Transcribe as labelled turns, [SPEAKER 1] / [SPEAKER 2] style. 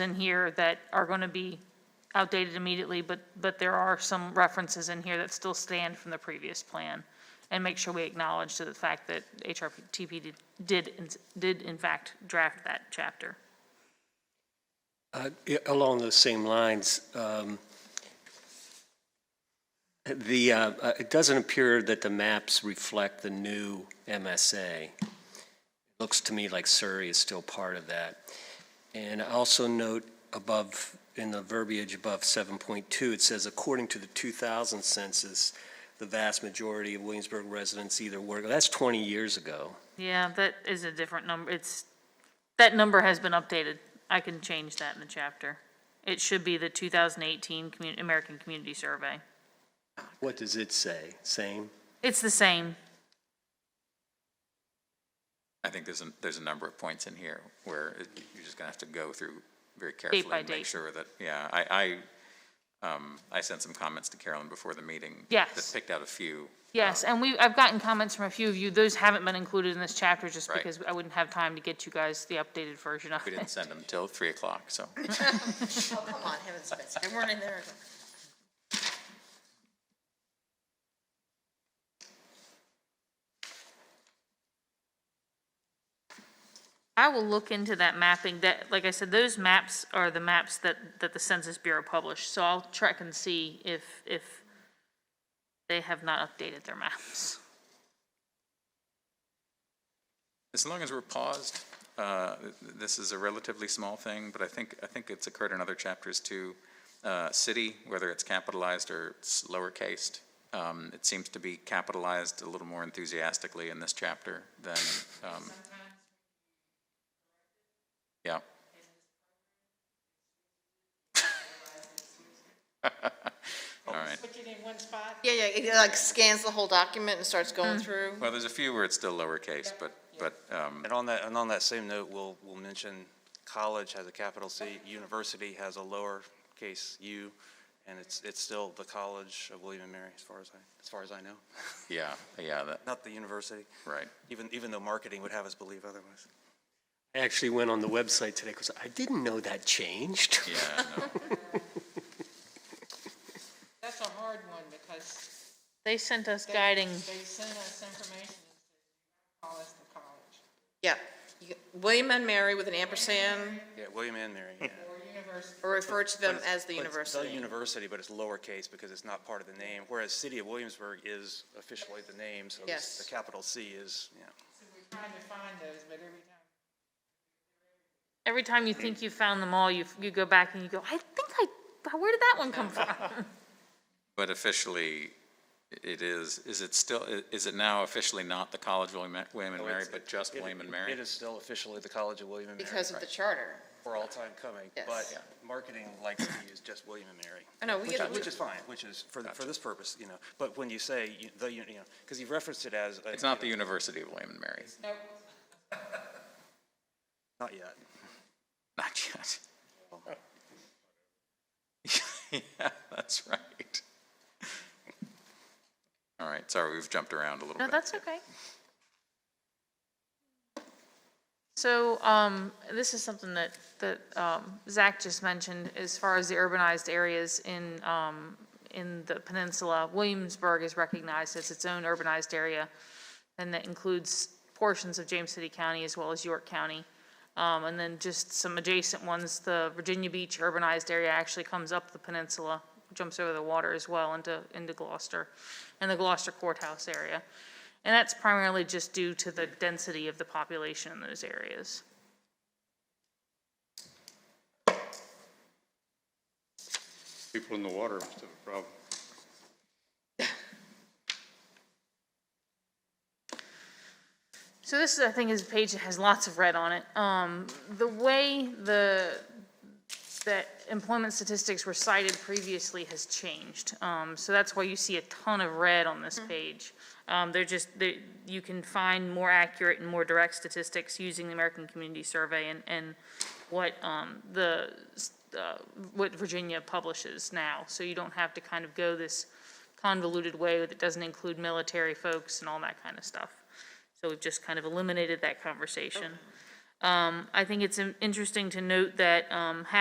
[SPEAKER 1] in here that are going to be outdated immediately, but, but there are some references in here that still stand from the previous plan. And make sure we acknowledge to the fact that HRTP did- did, in- did in fact draft that chapter.
[SPEAKER 2] Uh, i- Along those same lines, um, the, uh, uh, it doesn't appear that the maps reflect the new MSA. It Looks to me like Surrey is still part of that. And I also note above, in the verbiage above 7.2, it says, according to the 2000 census, the vast majority of Williamsburg residents either work, that's 20 years ago.
[SPEAKER 1] Yeah, that is a different number. It's, that number has been updated. I can change that in the chapter. It should be the 2018 commu- American Community Survey.
[SPEAKER 2] What does it say? Same?
[SPEAKER 1] It's the same.
[SPEAKER 3] I think there's a, there's a number of points in here where it- you're just gonna have to go through very carefully
[SPEAKER 1] by
[SPEAKER 3] and make
[SPEAKER 1] date.
[SPEAKER 3] sure that, yeah, I, I, um, I sent some comments to Carolyn before the meeting.
[SPEAKER 1] Yes.
[SPEAKER 3] That picked out a few.
[SPEAKER 1] Yes, and we, I've gotten comments from a few of you. Those haven't been included in this chapter just
[SPEAKER 3] Right.
[SPEAKER 1] because I wouldn't have time to get you guys the updated version of
[SPEAKER 3] We didn't
[SPEAKER 1] it.
[SPEAKER 3] send them till three o'clock, so.
[SPEAKER 4] Oh, come on, heaven's sakes, they weren't in there.
[SPEAKER 1] I will look into that mapping. That, like I said, those maps are the maps that, that the Census Bureau published. So I'll track and see if, if they have not updated their maps.
[SPEAKER 3] As long as we're paused, uh, th- this is a relatively small thing, but I think, I think it's occurred in other chapters too. Uh, City, whether it's capitalized or it's lowercased, um, it seems to be capitalized a little more enthusiastically in this chapter than, um, yeah. All right.
[SPEAKER 4] Yeah, yeah, it like scans the whole document and starts going through.
[SPEAKER 3] Well, there's a few where it's still lowercase, but, but, um,
[SPEAKER 5] And on that, and on that same note, we'll, we'll mention college has a capital C, university has a lowercase u, and it's, it's still the College of William and Mary, as far as I, as far as I know,
[SPEAKER 3] yeah, yeah, that,
[SPEAKER 5] not the university,
[SPEAKER 3] right.
[SPEAKER 5] even, even though marketing would have us believe otherwise.
[SPEAKER 2] I actually went on the website today because I didn't know that changed.
[SPEAKER 3] Yeah, no.
[SPEAKER 6] That's a hard one because.
[SPEAKER 1] They sent us
[SPEAKER 6] they-
[SPEAKER 1] guiding,
[SPEAKER 6] They sent us information and said, call us the college
[SPEAKER 4] Yeah, You- William and Mary with an ampersand,
[SPEAKER 5] Yeah, William and Mary, yeah.
[SPEAKER 6] or university.
[SPEAKER 4] or refer to them
[SPEAKER 5] But it's-
[SPEAKER 4] as the
[SPEAKER 5] but it's The
[SPEAKER 4] university.
[SPEAKER 5] university, but it's lowercase because it's not part of the name, whereas City of Williamsburg is officially the name, so this-
[SPEAKER 4] Yes.
[SPEAKER 5] the capital C is, yeah.
[SPEAKER 6] So We're trying to find those, but every time.
[SPEAKER 1] every time you think you found them all, you, you go back and you go, I think I, where did that one come from?
[SPEAKER 3] But officially, it is, is it still, is it now officially not the College of William William and
[SPEAKER 5] So
[SPEAKER 3] Mary,
[SPEAKER 5] it's-
[SPEAKER 3] but just
[SPEAKER 5] it-
[SPEAKER 3] William and
[SPEAKER 5] It
[SPEAKER 3] Mary?
[SPEAKER 5] is still officially the College of William and Mary.
[SPEAKER 4] Because of the charter.
[SPEAKER 5] for all time coming,
[SPEAKER 4] Yes.
[SPEAKER 5] but
[SPEAKER 4] Yeah.
[SPEAKER 5] marketing likes to use just William and Mary.
[SPEAKER 4] I know, we
[SPEAKER 5] Which
[SPEAKER 4] get-
[SPEAKER 5] is- Which is fine, which is, for, the- for this purpose, you know, but when you say, you- the, you you know, because you've referenced it as. a-
[SPEAKER 3] It's not the
[SPEAKER 5] you know,
[SPEAKER 3] University of William and Mary,
[SPEAKER 6] No,
[SPEAKER 5] Not
[SPEAKER 3] not yet.
[SPEAKER 5] yet.
[SPEAKER 3] Yeah, that's right. All right, sorry, we've jumped around a little bit.
[SPEAKER 1] No, that's okay. So, um, this is something that, that, um, Zach just mentioned, as far as the urbanized areas in, um, in the peninsula, Williamsburg is recognized as its own urbanized area, and that includes portions of James City County as well as York County. Um, and then just some adjacent ones, the Virginia Beach urbanized area actually comes up the peninsula, jumps over the water as well into, into Gloucester, and the Gloucester Courthouse area. And that's primarily just due to the density of the population in those areas.
[SPEAKER 7] People in the water must have a problem.
[SPEAKER 1] So this, I think, is a page that has lots of red on it. Um, the way the, that employment statistics were cited previously has changed. Um, so that's why you see a ton of red on this page. Um, they're just, they, you can find more accurate and more direct statistics using the American Community Survey and, and what, um, the, uh, what Virginia publishes now. So you don't have to kind of go this convoluted way that doesn't include military folks and all that kind of stuff. So we've just kind of eliminated that conversation. Um, I think it's in- interesting to note that, um, half